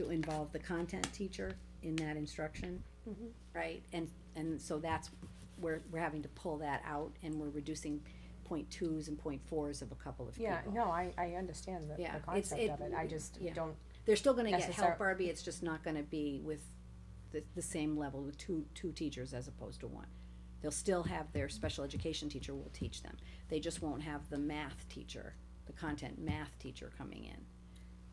to involve the content teacher in that instruction, right? And, and so that's, we're, we're having to pull that out and we're reducing point twos and point fours of a couple of people. Yeah, no, I, I understand the, Yeah, the it's- concept it- of it, I just yeah. don't, They're still gonna get Necessar- help, Barbie, it's just not gonna be with the, the same level, with two, two teachers as opposed to one. They'll still have their special education teacher will teach them, they just won't have the math teacher, the content math teacher coming in.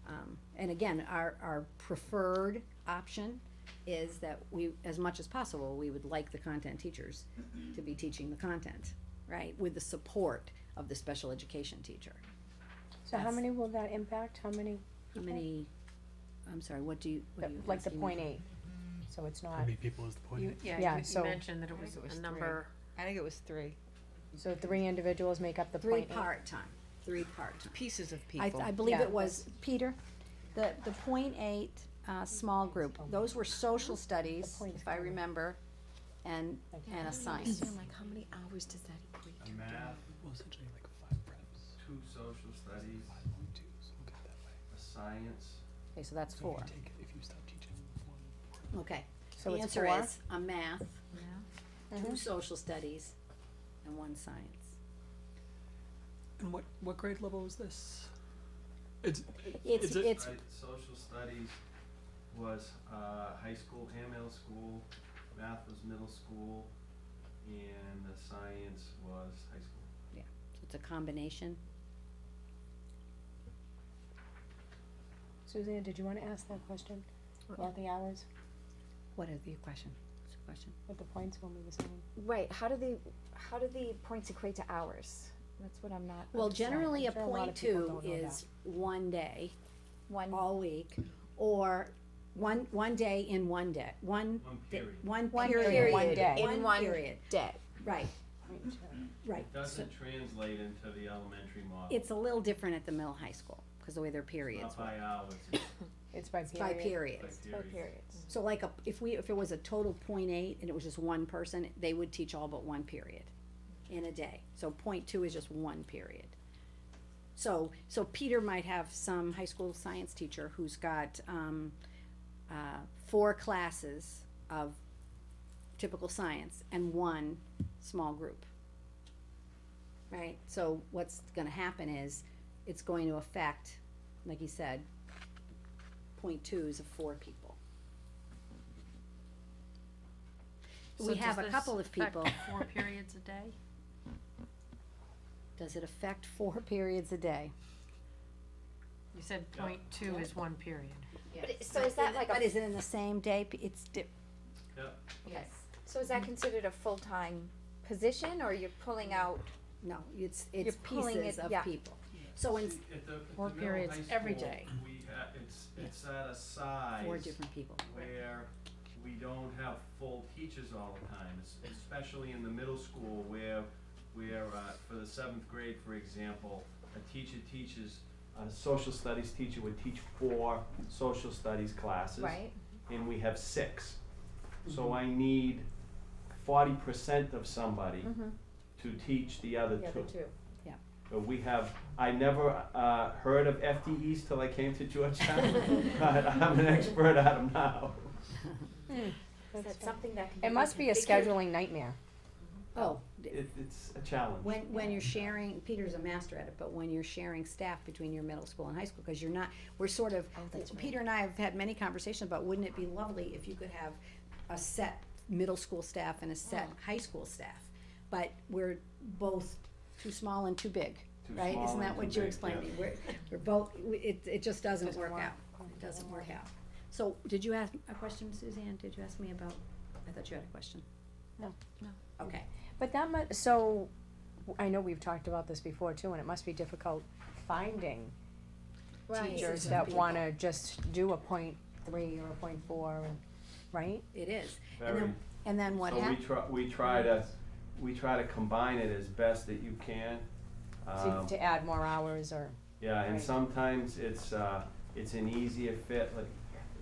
Um, and again, our, our preferred option is that we, as much as possible, we would like the content teachers to be teaching the content, right? With the support of the special education teacher. so how That's- many will that impact, how many, How many, I'm sorry, what do you, what the- do you? like the asking me? point eight? So it's How not, many people is the You, point? Yeah, yeah, you- so- you mentioned that I it think was it was a three. number, I think it was three so three individuals make up the Three point eight? part-time, three part-time. pieces of I, people. I believe Yeah. it was, Peter, the, the point eight, uh, small group, those were social studies, point is if I coming. remember, and, and a science. like how many hours does that equate a math, Well, essentially like five preps, two social studies, five point twos, look at it that way. a science, Okay, so that's So if four. you take, if you stop teaching one, Okay, So the it's answer four? is a math, yeah. Uh-huh. two social studies, and one science. and what, what grade level is this? It's, It's, Is it- it's, right? Social studies was, uh, high school and middle school, math was middle school, and the science was high school. it's a combination. Suzanne, did you wanna ask that question Uh-uh. about the hours, What is the question? What's the question? with the points when we were saying? Right, how do the, how do the points equate to hours? That's what I'm not Well, understanding. generally, a I'm sure a lot point of people two don't know that. is one day, One, all week, or one, one day in one day, one. One day- period. One one period. period, One day. in one period, day. right, Point two. right. It So Doesn't translate into the elementary model. It's a little different at the middle high school, cause the way their periods Not were, by hours, it's It's by by period, by periods. Four periods. periods. So like, a- if we, if it was a total point eight and it was just one person, they would teach all but one period in a day. So point two is just one period. So, so Peter might have some high school science teacher who's got, um, uh, four classes of typical science and one small group. Right, so what's gonna happen is, it's going to affect, like you said, point twos of four people. So We does have a this couple of affect people, Four periods a day? does it affect four periods a day? You said point two is one period. But it- so is that like But a, is it in the same day, P- it's di- Yep, yes, Mm-hmm. so is that considered a full-time position or you're pulling out? no, it's, it's You're pulling pieces it- of yeah. people. So in See, at the, at the Four middle periods high every school, day. We, ha- it's, it's at a size. four different people, where we don't have full teachers all the time, es- especially in the middle school where, where, uh, for the seventh grade, for example, a teacher teaches, a social studies teacher would teach four social studies classes. And we have six. So I need forty percent of somebody Mm-hmm. to teach Mm-hmm. the other two. But we have, I never uh, heard of FTEs till I came to Georgetown, but I'm an expert at them now. Is That's that something that can be? it must be a reconfigured? scheduling nightmare, oh, d- It, it's a challenge. When, when you're sharing, Peter's a master at it, but when you're sharing staff between your middle school and high school, cause you're not, we're sort of, Oh, Peter and I have had many conversations about, wouldn't it be lovely if you could have a set middle school staff and a Oh. set high school staff? But we're both too small and too big, Too right? small Isn't and that too what you big, explained to yeah. me? We're, we're both, we- it, it just doesn't Doesn't work work. out, it doesn't work out. So, did you ask a question, Suzanne? Did you ask me about, I thought you had a question? No. No. Okay. but that mu- so, I know we've talked about this before too, and it must be difficult finding teachers Some that people. wanna just do a point three or a point four, and- right? It is, and Very. then, and then what So we happened? try, we try to, we try to combine it as best that you can. To, Um, to add more hours or, Yeah, and Right. sometimes it's, uh, it's an easier fit, like,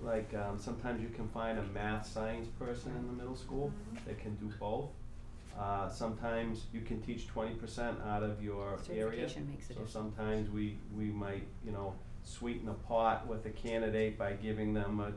like, um, sometimes you can find a math science person in the middle school Mm-hmm. that can do both. Uh, sometimes you can teach twenty percent out of your area. Certification makes a So difference. sometimes we, we might, you know, sweeten the pot with a candidate by giving them a